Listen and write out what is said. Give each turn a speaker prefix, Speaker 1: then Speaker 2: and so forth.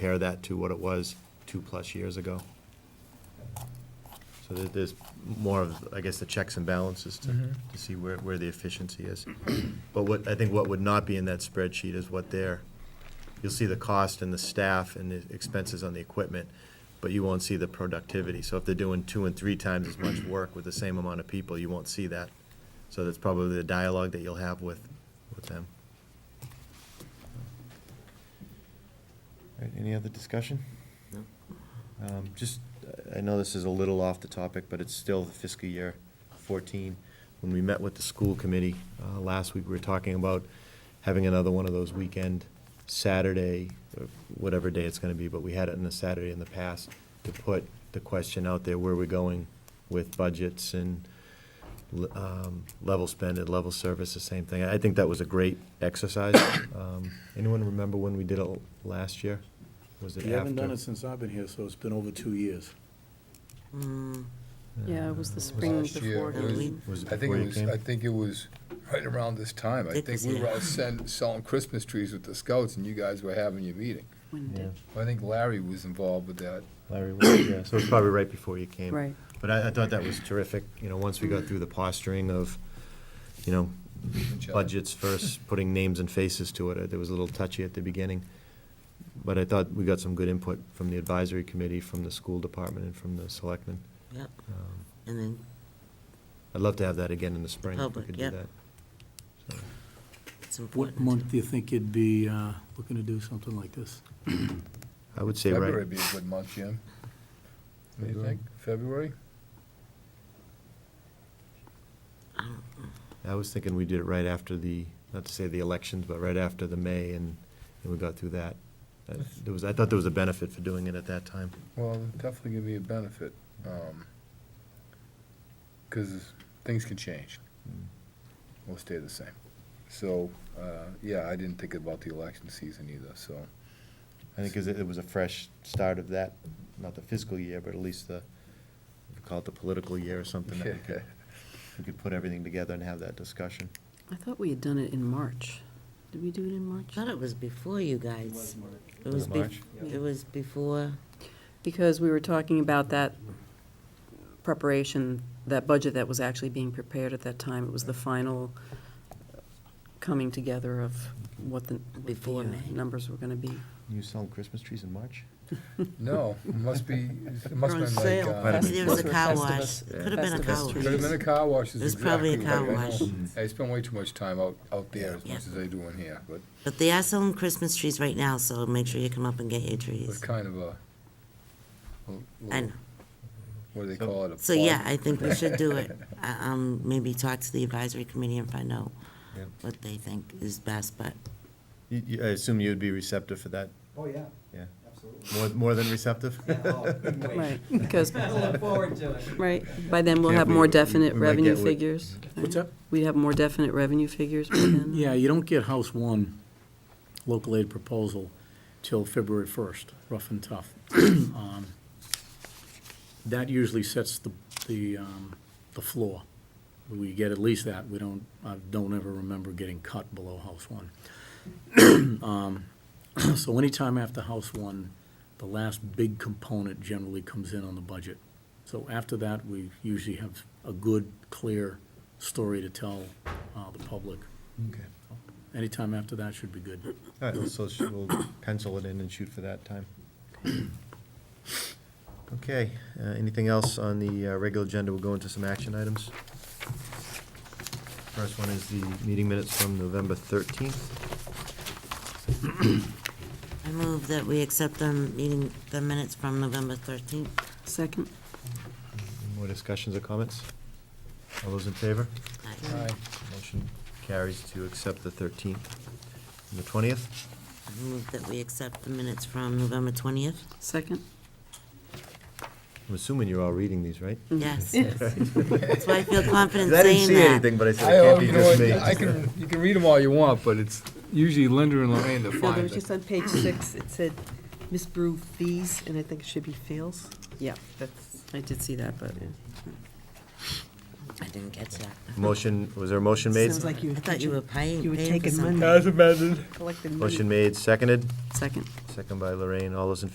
Speaker 1: compare that to what it was two-plus years ago. So there- there's more of, I guess, the checks and balances to, to see where, where the efficiency is. But what, I think what would not be in that spreadsheet is what their, you'll see the cost and the staff and the expenses on the equipment, but you won't see the productivity. So if they're doing two and three times as much work with the same amount of people, you won't see that. So that's probably the dialogue that you'll have with, with them. All right, any other discussion? Um, Just, I know this is a little off the topic, but it's still the fiscal year 14. When we met with the school committee uh, last week, we were talking about having another one of those weekend Saturday, or whatever day it's going to be, but we had it on a Saturday in the past to put the question out there, where we're going with budgets and l- um, level spend and level service, the same thing. I think that was a great exercise. Um, Anyone remember when we did it l- last year? Was it
Speaker 2: We haven't done
Speaker 1: after?
Speaker 2: it since I've been here, so it's been over two years.
Speaker 3: Mm,
Speaker 4: Yeah, it was the spring
Speaker 5: last year.
Speaker 4: before
Speaker 5: It was-
Speaker 4: Halloween.
Speaker 1: Was it
Speaker 5: I think
Speaker 1: before
Speaker 5: it
Speaker 1: you
Speaker 5: was,
Speaker 1: came?
Speaker 5: I think it was right around this time. I
Speaker 4: Dick
Speaker 5: think
Speaker 4: was
Speaker 5: we were
Speaker 4: here.
Speaker 5: all send, selling Christmas trees with the scouts and you guys were having your meeting.
Speaker 4: When did-
Speaker 5: I think Larry was involved with that.
Speaker 1: Larry was, yeah, so it was probably right before you came.
Speaker 4: Right.
Speaker 1: But I, I thought that was terrific, you know, once we got through the posturing of, you know,
Speaker 5: each other.
Speaker 1: budgets first, putting names and faces to it, it was a little touchy at the beginning. But I thought we got some good input from the advisory committee, from the school department, and from the selectmen.
Speaker 3: Yep,
Speaker 1: Um,
Speaker 3: and then,
Speaker 1: I'd love to have that again in the spring, if we
Speaker 3: Public,
Speaker 1: could do
Speaker 3: yeah.
Speaker 1: that. So,
Speaker 3: it's
Speaker 2: What
Speaker 3: important.
Speaker 2: month do you think you'd be uh, looking to do something like this?
Speaker 1: I would say
Speaker 5: February
Speaker 1: right,
Speaker 5: would be a good month, Jim. What do you
Speaker 1: February.
Speaker 5: think? February?
Speaker 1: I was thinking we did it right after the, not to say the elections, but right after the May, and, and we got through that. Uh, There was, I thought there was a benefit for doing it at that time.
Speaker 5: Well, it'd definitely give me a benefit, um, cause things can change. We'll stay the same. So, uh, yeah, I didn't think about the election season either, so.
Speaker 1: I think 'cause it it was a fresh start of that, not the fiscal year, but at least the, if you call it the political year or something, that we could, we could put everything together and have that discussion.
Speaker 4: I thought we had done it in March. Did we do it in
Speaker 3: I
Speaker 4: March?
Speaker 3: thought it was before you guys. It was
Speaker 1: it
Speaker 3: bef-
Speaker 1: March?
Speaker 3: It was before,
Speaker 4: Because we were talking about that preparation, that budget that was actually being prepared at that time. It was the final uh, coming together of what the, what the,
Speaker 3: Before
Speaker 4: uh,
Speaker 3: May.
Speaker 4: numbers were gonna be.
Speaker 1: You selling Christmas trees in March?
Speaker 5: No, it must be, it must
Speaker 3: They're
Speaker 5: be
Speaker 3: on
Speaker 5: like,
Speaker 3: sale.
Speaker 5: uh,
Speaker 1: Might have been
Speaker 3: there was a
Speaker 1: before.
Speaker 3: car
Speaker 4: Festivus.
Speaker 3: wash. It could have been a car
Speaker 4: Festivus
Speaker 3: wash.
Speaker 4: trees.
Speaker 5: Could have been a car wash. is
Speaker 3: It was probably a
Speaker 5: exactly
Speaker 3: car
Speaker 5: what I-
Speaker 3: wash. Mm.
Speaker 5: I spend way too much time out, out there as
Speaker 3: Yeah.
Speaker 5: much as I do in here, but
Speaker 3: But they are selling Christmas trees right now, so make sure you come up and get your
Speaker 5: it's
Speaker 3: trees.
Speaker 5: kind of a, a
Speaker 3: I
Speaker 5: little-
Speaker 3: know.
Speaker 5: what do they call it? a
Speaker 3: So, yeah,
Speaker 5: plug?
Speaker 3: I think we should do it. Uh, Um, maybe talk to the advisory committee and find out
Speaker 1: Yeah.
Speaker 3: what they think is best, but
Speaker 1: You, you, I assume you'd be receptive for that,
Speaker 6: Oh, yeah,
Speaker 1: yeah?
Speaker 6: absolutely.
Speaker 1: More, more than receptive?
Speaker 6: Yeah, oh, couldn't wait.
Speaker 4: Right, because,
Speaker 6: I look forward to it.
Speaker 4: right, by then we'll
Speaker 1: Can't
Speaker 4: have
Speaker 1: we-
Speaker 4: more
Speaker 1: we-
Speaker 4: definite
Speaker 1: we might
Speaker 4: revenue
Speaker 1: get what-
Speaker 4: figures.
Speaker 2: What's up?
Speaker 4: We have more definite revenue figures by then.
Speaker 2: Yeah, you don't get House One local aid proposal till February first, rough and tough. Um, That usually sets the, the, um, the floor. We get at least that, we don't, I don't ever remember getting cut below House One. Um, So anytime after House One, the last big component generally comes in on the budget. So after that, we usually have a good, clear story to tell uh, the public.
Speaker 1: Okay.
Speaker 2: Anytime after that should be good.
Speaker 1: All right, Uh, so sh- we'll pencil it in and shoot for that time. Okay, uh, anything else on the uh, regular agenda? We'll go into some action items. First one is the meeting minutes from November 13th.
Speaker 3: I move that we accept them, meeting the minutes from November thirteenth.
Speaker 4: Second,
Speaker 1: Any More discussions or comments? All those in favor?
Speaker 5: Aye.
Speaker 1: Motion carries to accept the 13th. And the 20th?
Speaker 3: Move that we accept the minutes from November twentieth.
Speaker 4: second?
Speaker 1: I'm assuming you're all reading these, right?
Speaker 3: Yes. That's why I feel confident
Speaker 1: I didn't
Speaker 3: saying
Speaker 1: see
Speaker 3: that.
Speaker 1: anything, but I said
Speaker 5: I,
Speaker 1: it
Speaker 5: uh,
Speaker 1: can't be
Speaker 5: you know what,
Speaker 1: just me.
Speaker 5: I can, you can read them all you want, but it's usually Linda and Lorraine that
Speaker 7: No,
Speaker 5: find
Speaker 7: there was
Speaker 5: it.
Speaker 7: just on page six, it said misbrew fees, and I think it should be feels.
Speaker 4: Yeah,
Speaker 7: That's,
Speaker 4: I did see that, but.
Speaker 3: I didn't catch that.
Speaker 1: Motion, was there a motion made?
Speaker 7: sounds like you
Speaker 3: I
Speaker 7: were
Speaker 3: thought you were
Speaker 7: teaching,
Speaker 3: paying,
Speaker 7: you were
Speaker 3: paying for
Speaker 7: taking
Speaker 3: something.
Speaker 7: money, collecting money.
Speaker 1: Motion made, seconded.
Speaker 4: Second,
Speaker 1: Second by Lorraine. All those in